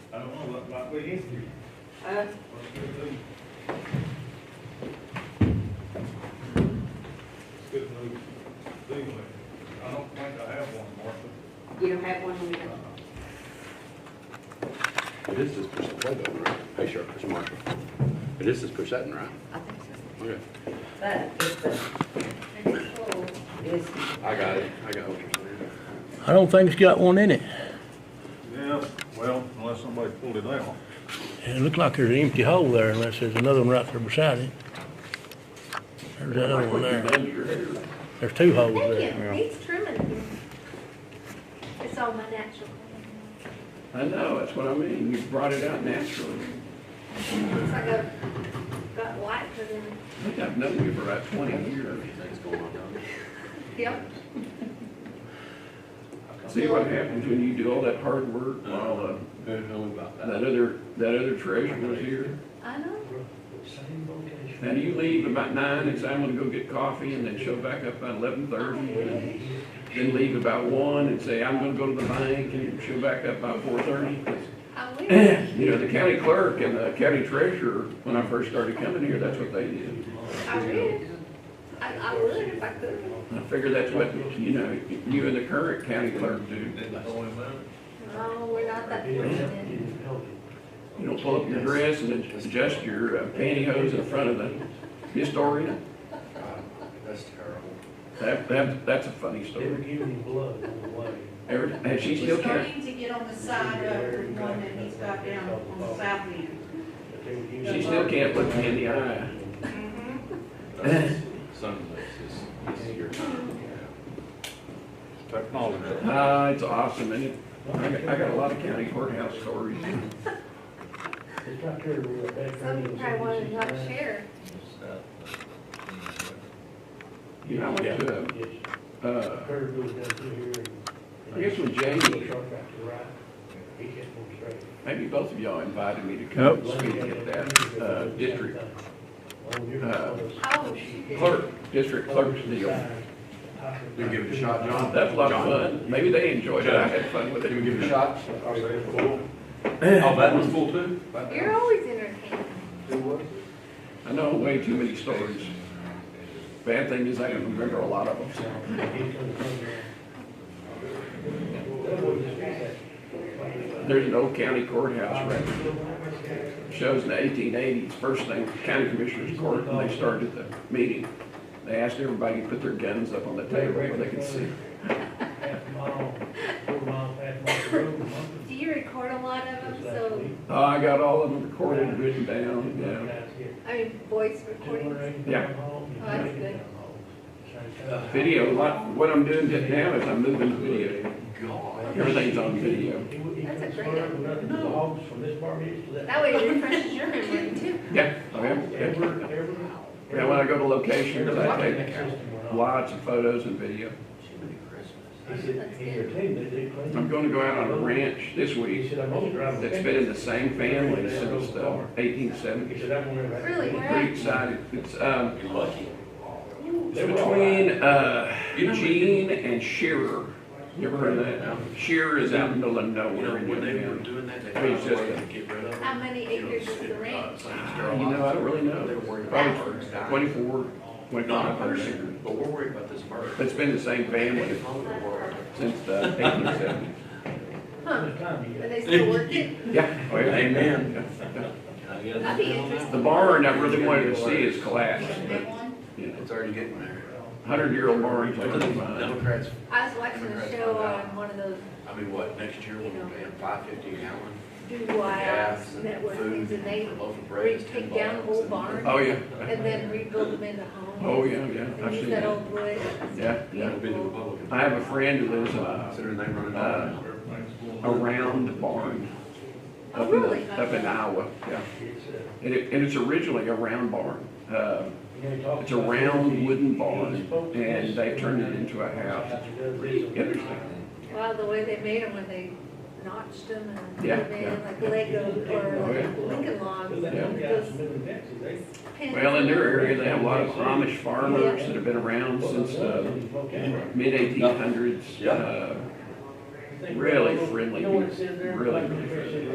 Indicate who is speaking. Speaker 1: complete history.
Speaker 2: Uh,
Speaker 1: What's good to do? It's good to do. Anyway, I don't think I have one, Martha.
Speaker 2: you don't have one on your,
Speaker 1: Uh,
Speaker 3: This is for Plato, right? Hey, sure, for Marshall. This is for Sutton, right?
Speaker 2: I think so.
Speaker 3: Okay.
Speaker 4: But if the next poll is
Speaker 3: I got it. I got what you're saying.
Speaker 5: I don't think it's got one in it.
Speaker 1: Yes, well, unless somebody pulled it out.
Speaker 5: It looked like there's an empty hole there unless there's another one right there beside it. There's that other one there. There's two holes
Speaker 6: Thank
Speaker 5: there.
Speaker 6: you, he's trimming. It's all my natural.
Speaker 7: I know, that's what I mean. You brought it out naturally.
Speaker 6: It's like I've got white put in.
Speaker 7: I think I've known you for about twenty years.
Speaker 3: Things going on down
Speaker 6: Yep.
Speaker 7: See what happens when you do all that hard work while
Speaker 3: there. Who knew about
Speaker 7: uh, that other, that other treasurer was here?
Speaker 6: I know.
Speaker 7: Now, do you leave about nine, and say, I'm gonna go get coffee, and then show back up by eleven thirty? Then leave about one and say, I'm gonna go to the bank, and show back up by four thirty?
Speaker 6: I will.
Speaker 7: You know, the county clerk and the county treasurer, when I first started coming here, that's what they did.
Speaker 6: I will. I, I would if I could.
Speaker 7: I figure that's what, you know, you and the current county clerk do.
Speaker 6: No, we're not that fortunate.
Speaker 7: You know, pull up your dress and adjust your uh, pantyhose in front of the historian.
Speaker 3: That's terrible.
Speaker 7: That, that, that's a funny story.
Speaker 8: giving blood on the way.
Speaker 7: Ever, has she
Speaker 2: She's
Speaker 7: still counting?
Speaker 2: starting to get on the side of the one that he's got down on the south end.
Speaker 8: But they were using-
Speaker 7: She still can't look me in the eye.
Speaker 2: Mhm.
Speaker 3: Sundays is, is your time.
Speaker 1: Technology.
Speaker 7: Ah, it's awesome, and it, I got, I got a lot of county courthouse stories.
Speaker 8: It's right there where that back
Speaker 6: Some
Speaker 8: room
Speaker 6: people
Speaker 8: is.
Speaker 6: probably want to not share.
Speaker 7: You know, I went to,
Speaker 8: Yes,
Speaker 7: uh, uh,
Speaker 8: curve goes down through here and.
Speaker 7: I guess when Jay was here.
Speaker 8: Sharp right to right, he kept on straight.
Speaker 7: maybe both of y'all invited me to come and speak at that, uh, district
Speaker 6: Oh, shoot.
Speaker 7: clerk, district clerk's deal.
Speaker 3: You give it a shot, John.
Speaker 7: That's a lot of fun. Maybe they enjoyed it. I had fun with
Speaker 3: Can
Speaker 7: it.
Speaker 3: we give it a shot? Oh, that one's full too?
Speaker 6: You're always entertaining.
Speaker 7: I know way too many stories. Bad thing is I can remember a lot of them. There's an old county courthouse record. Shows in the eighteen eighties, first thing, county commissioners court, and they started the meeting. They asked everybody to put their guns up on the table where they could see.
Speaker 8: Half mile, four mile, half mile road, month.
Speaker 6: Do you record a lot of them? So,
Speaker 7: Oh, I got all of them recorded, and written down, yeah.
Speaker 6: I mean, voice recordings.
Speaker 7: Yeah.
Speaker 6: that's good.
Speaker 7: Video, like, what I'm doing now is I'm moving to video. Everything's on video.
Speaker 6: That's a great
Speaker 8: idea. Dogs from this part here to that.
Speaker 6: That way it refreshes your memory too.
Speaker 7: Yeah, I am.
Speaker 8: Every,
Speaker 7: Yeah,
Speaker 8: every.
Speaker 7: when I go to locations, I take
Speaker 8: He
Speaker 7: lots of photos and video.
Speaker 8: said, he said, hey, they, they clean.
Speaker 7: I'm gonna go out on a ranch this
Speaker 8: He
Speaker 7: week
Speaker 8: said, I'm gonna drive.
Speaker 7: that's been in the same family since the eighteen
Speaker 8: He
Speaker 7: seventies.
Speaker 8: said, I'm gonna. drive."
Speaker 6: Really, where
Speaker 7: Pretty
Speaker 6: at?
Speaker 7: excited. It's, um,
Speaker 3: You're lucky.
Speaker 7: it's between, uh, Eugene and Shearer. You ever heard of that? Shearer is out in the middle of nowhere in Wood County.
Speaker 3: doing that, they
Speaker 7: found a way to
Speaker 3: get rid of
Speaker 6: How many acres is the ranch?
Speaker 7: Uh, You know, I don't really know. Probably twenty-four, twenty-five percent.
Speaker 3: but we're worried about this bird.
Speaker 7: It's been the same family since the eighteen seventies.
Speaker 6: Huh,
Speaker 8: What time you
Speaker 6: but
Speaker 8: got?
Speaker 6: they still work it?
Speaker 7: Yeah. oh, yeah.
Speaker 3: Amen.
Speaker 6: I'd be interested.
Speaker 7: The barn I really wanted to see is collapsed.
Speaker 2: Big one?
Speaker 3: It's already getting there.
Speaker 7: Hundred-year-old barn, like this mine.
Speaker 3: Democrats,
Speaker 6: I was watching a show on one of those
Speaker 3: I mean, what, next year when we're paying five fifty a gallon?
Speaker 6: DIYs network things and they
Speaker 3: loaf of bread
Speaker 6: re-
Speaker 3: is ten
Speaker 6: take down
Speaker 3: bucks,
Speaker 6: old
Speaker 3: and-
Speaker 6: barns
Speaker 7: Oh, yeah,
Speaker 6: and then rebuild them into homes.
Speaker 7: oh, yeah, yeah,
Speaker 6: And
Speaker 7: I've
Speaker 6: use
Speaker 7: seen
Speaker 6: that
Speaker 7: that.
Speaker 6: old wood. It's
Speaker 7: Yeah, yeah.
Speaker 3: It'll be the Republican.
Speaker 7: I have a friend who lives uh,
Speaker 3: Considering they run it
Speaker 7: Uh,
Speaker 3: all.
Speaker 7: around the barn.
Speaker 6: Oh,
Speaker 7: up in-
Speaker 6: really?
Speaker 7: Up in Iowa, yeah.
Speaker 8: It's, uh,
Speaker 7: And it, and it's originally a round barn. Uh,
Speaker 8: you know, he talks
Speaker 7: It's a
Speaker 8: about-
Speaker 7: round wooden barn,
Speaker 8: He spoke to
Speaker 7: and
Speaker 8: us.
Speaker 7: they turned it into a house. Pretty interesting.
Speaker 6: Wow, the way they made them when they notched them and put
Speaker 7: Yeah,
Speaker 6: them in like Lego
Speaker 7: Oh, yeah.
Speaker 6: or like Lincoln logs.
Speaker 8: That
Speaker 7: Yeah.
Speaker 8: one
Speaker 6: and
Speaker 8: guy from
Speaker 6: those
Speaker 8: Middle Texas, they-
Speaker 6: pins.
Speaker 7: Well, in their area, they have a lot of Amish farmers that have been around since uh, the mid-eighteen hundreds. Uh,
Speaker 3: Yeah.
Speaker 7: Really friendly
Speaker 8: You know what it
Speaker 7: people.
Speaker 8: said there?
Speaker 7: Really, really friendly.